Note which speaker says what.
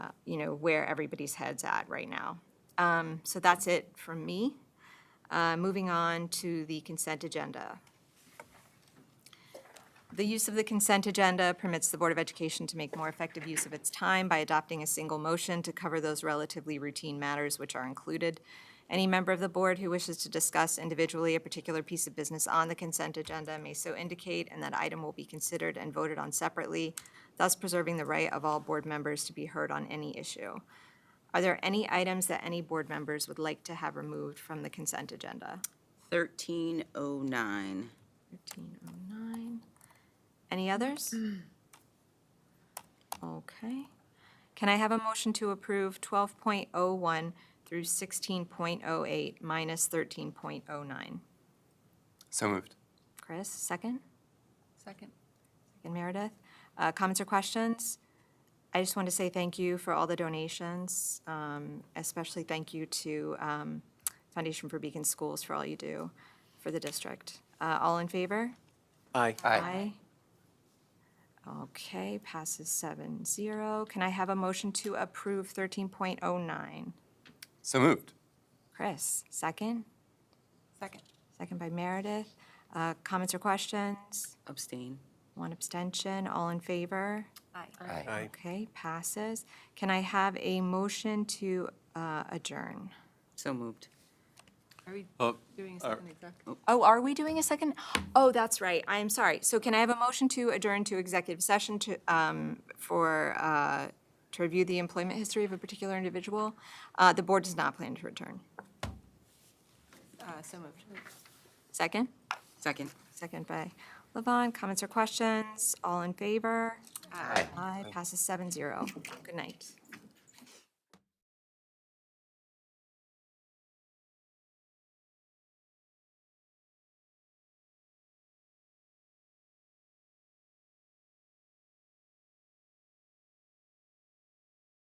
Speaker 1: uh, you know, where everybody's head's at right now. Um, So that's it from me. Uh, Moving on to the consent agenda. The use of the consent agenda permits the Board of Education to make more effective use of its time by adopting a single motion to cover those relatively routine matters which are included. Any member of the board who wishes to discuss individually a particular piece of business on the consent agenda may so indicate, and that item will be considered and voted on separately, thus preserving the right of all board members to be heard on any issue. Are there any items that any board members would like to have removed from the consent agenda?
Speaker 2: 1309.
Speaker 1: 1309. Any others? Okay. Can I have a motion to approve 12.01 through 16.08 minus 13.09?
Speaker 3: So moved.
Speaker 1: Chris, second?
Speaker 4: Second.
Speaker 1: Second, Meredith. Uh, Comments or questions? I just want to say thank you for all the donations, um, especially thank you to um, Foundation for Beacon Schools for all you do for the district. Uh, All in favor?
Speaker 5: Aye.
Speaker 1: Aye. Okay, passes seven zero. Can I have a motion to approve thirteen point oh nine?
Speaker 3: So moved.
Speaker 1: Chris, second?
Speaker 4: Second.
Speaker 1: Second by Meredith. Uh, Comments or questions?
Speaker 2: Abstain.
Speaker 1: One abstention, all in favor?
Speaker 4: Aye.
Speaker 3: Aye.
Speaker 5: Aye.
Speaker 1: Okay, passes. Can I have a motion to uh, adjourn?
Speaker 2: So moved.
Speaker 4: Are we
Speaker 3: Oh,
Speaker 4: doing a second exec?
Speaker 1: Oh, are we doing a second? Oh, that's right. I am sorry. So can I have a motion to adjourn to executive session to, um, for, uh, to review the employment history of a particular individual? Uh, the board does not plan to return.
Speaker 4: Uh, So moved.
Speaker 1: Second?
Speaker 2: Second.
Speaker 1: Second by Levon. Comments or questions? All in favor?
Speaker 4: Aye.
Speaker 1: Aye, passes seven zero. Good night.